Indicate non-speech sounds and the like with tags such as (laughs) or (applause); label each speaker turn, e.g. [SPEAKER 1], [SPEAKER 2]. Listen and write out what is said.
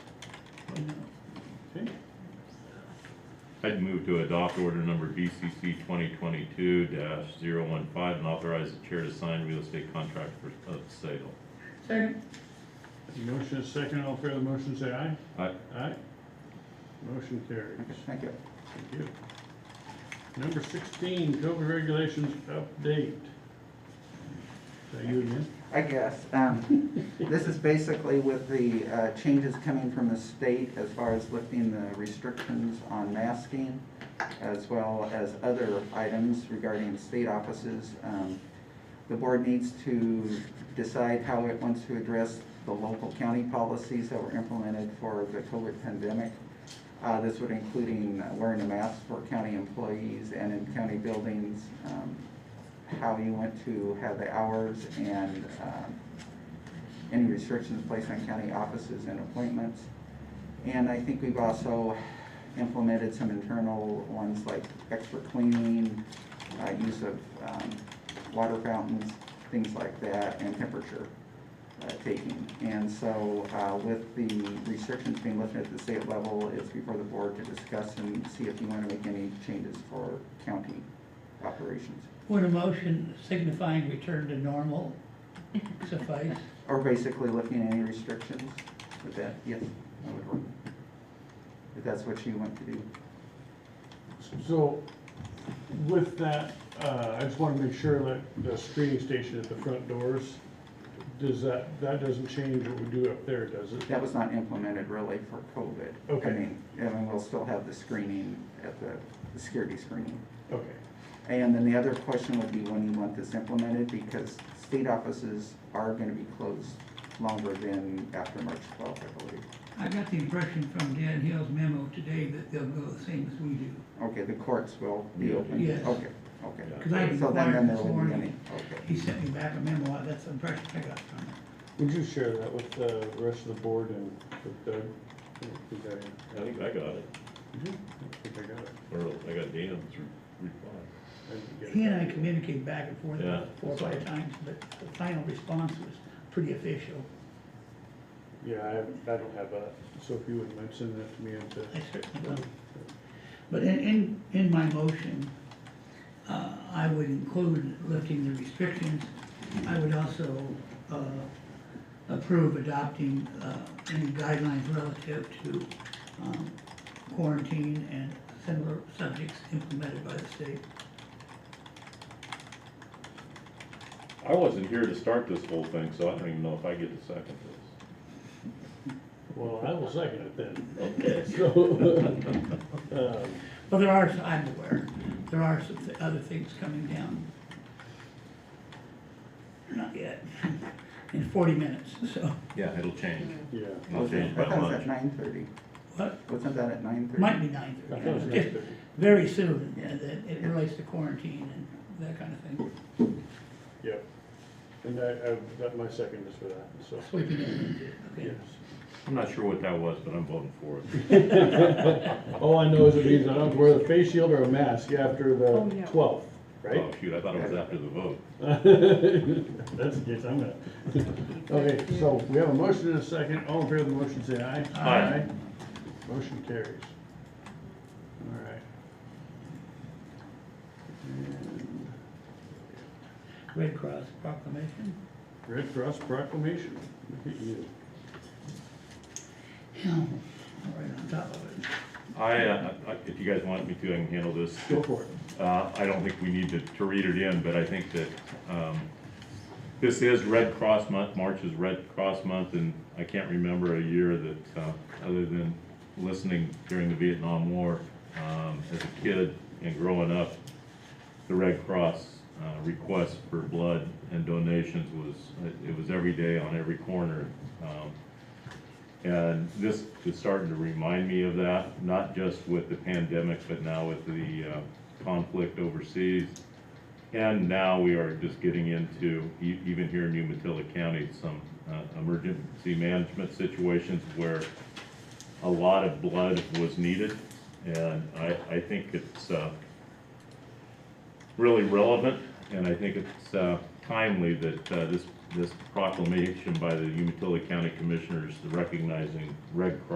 [SPEAKER 1] I'd move to adopt order number BCC twenty twenty-two 15 and authorize the chair to sign real estate contract for, of sale.
[SPEAKER 2] Second.
[SPEAKER 3] Motion is second, all fair the motion, say aye.
[SPEAKER 1] Aye.
[SPEAKER 3] Aye. Motion carries.
[SPEAKER 2] Thank you.
[SPEAKER 3] Thank you. Number sixteen, COVID regulations update. Is that you again?
[SPEAKER 2] I guess. Um, This is basically with the uh, changes coming from the state as far as lifting the restrictions on masking, as well as other items regarding state offices. Um, The board needs to decide how it wants to address the local county policies that were implemented for the COVID pandemic. Uh, This would including wearing a mask for county employees and in county buildings, um, how you want to have the hours and um, any restrictions placed on county offices and appointments. And I think we've also implemented some internal ones like extra cleaning, uh, use of um, water fountains, things like that, and temperature uh, taking. And so uh, with the restrictions being lifted at the state level, it's before the board to discuss and see if you want to make any changes for county operations.
[SPEAKER 4] Would a motion signifying return to normal suffice?
[SPEAKER 2] Or basically looking at any restrictions with that, yes, that would work. If that's what you want to do.
[SPEAKER 3] So with that, uh, I just wanna make sure that the screening station at the front doors, does that, that doesn't change what we do up there, does it?
[SPEAKER 2] That was not implemented really for COVID. I
[SPEAKER 3] Okay.
[SPEAKER 2] mean, I mean, we'll still have the screening at the, the security screening.
[SPEAKER 3] Okay,
[SPEAKER 2] And then the other question would be when you want this implemented, because state offices are gonna be closed longer than after March twelfth, I believe.
[SPEAKER 4] I got the impression from Dan Hill's memo today that they'll go the same as we do.
[SPEAKER 2] Okay, the courts will be
[SPEAKER 1] Yeah.
[SPEAKER 2] open?
[SPEAKER 4] Yes.
[SPEAKER 2] Okay, okay.
[SPEAKER 4] Because I
[SPEAKER 2] So then, then
[SPEAKER 4] inquired
[SPEAKER 2] there
[SPEAKER 4] this
[SPEAKER 2] won't be any,
[SPEAKER 4] morning,
[SPEAKER 2] okay.
[SPEAKER 4] he sent me back a memo, I- that's the impression I got from him.
[SPEAKER 3] would you share that with the rest of the board and with Doug? I don't think I-
[SPEAKER 1] I think I got it,
[SPEAKER 3] I don't think Mm-hmm. I got it.
[SPEAKER 1] or I got Dan's re- reply.
[SPEAKER 3] I didn't get it.
[SPEAKER 4] He and I communicated back and forth
[SPEAKER 1] Yeah.
[SPEAKER 4] about four or five times, but the final response was pretty official.
[SPEAKER 3] Yeah, I, haven't- I don't have that, so if you wouldn't mind sending that to me and to.
[SPEAKER 4] I certainly will. But in, in, in my motion, uh, I would include lifting the restrictions. I would also, uh, approve adopting, uh, any guidelines relative to, um, quarantine and similar subjects implemented by the state.
[SPEAKER 1] I wasn't here to start this whole thing, so I don't even know if I get to second
[SPEAKER 3] Well, I will second it (laughs) then.
[SPEAKER 1] this. Okay.
[SPEAKER 3] So, um,
[SPEAKER 4] But there are, I'm aware, there are some th- other things coming down. Not yet, (laughs) in forty minutes, so,
[SPEAKER 1] Yeah, it'll change.
[SPEAKER 3] (laughs) yeah.
[SPEAKER 1] It'll (laughs)
[SPEAKER 2] Okay,
[SPEAKER 1] change by
[SPEAKER 2] I thought it was
[SPEAKER 1] much.
[SPEAKER 2] at nine thirty.
[SPEAKER 4] what,
[SPEAKER 2] Wasn't that at nine thirty?
[SPEAKER 4] might be nine
[SPEAKER 3] I thought it was
[SPEAKER 4] thirty.
[SPEAKER 3] nine thirty.
[SPEAKER 4] very soon, and that it relates to quarantine and that kind of thing,
[SPEAKER 3] Yep. And I, I've got my second is for that, so,
[SPEAKER 4] sweeping it into,
[SPEAKER 3] yes.
[SPEAKER 4] okay.
[SPEAKER 1] I'm not sure what that was, but I'm voting for it.
[SPEAKER 3] All I know is it means I don't have to wear the face shield or a mask after
[SPEAKER 5] Oh,
[SPEAKER 3] the
[SPEAKER 5] no.
[SPEAKER 3] twelfth,
[SPEAKER 1] Oh,
[SPEAKER 3] right?
[SPEAKER 1] shoot, I thought it was after the vote.
[SPEAKER 3] (laughs) That's, yes, I'm gonna. Okay, so we have a motion and a second. All in favor of the motion, say aye.
[SPEAKER 1] Aye.
[SPEAKER 3] Motion carries. All right. And
[SPEAKER 4] Red Cross proclamation.
[SPEAKER 3] Red Cross proclamation. Look at you.
[SPEAKER 4] Yeah, Right on top of it.
[SPEAKER 1] I, uh, I- if you guys want me to, I can handle this.
[SPEAKER 3] Go for it.
[SPEAKER 1] Uh, I don't think we need to, to read it in, but I think that, um, this is Red Cross Month, March is Red Cross Month, and I can't remember a year that, uh, other than listening during the Vietnam War, um, as a kid and growing up, the Red Cross, uh, request for blood and donations was, it- it was every day on every corner. Um, and this is starting to remind me of that, not just with the pandemic, but now with the uh, conflict overseas. And now we are just getting into, e- even here in Umatilla County, some uh, emergency management situations where a lot of blood was needed. And I, I think it's uh, really relevant, and I think it's uh, timely that uh, this, this proclamation by the Umatilla County Commissioners recognizing Red Cross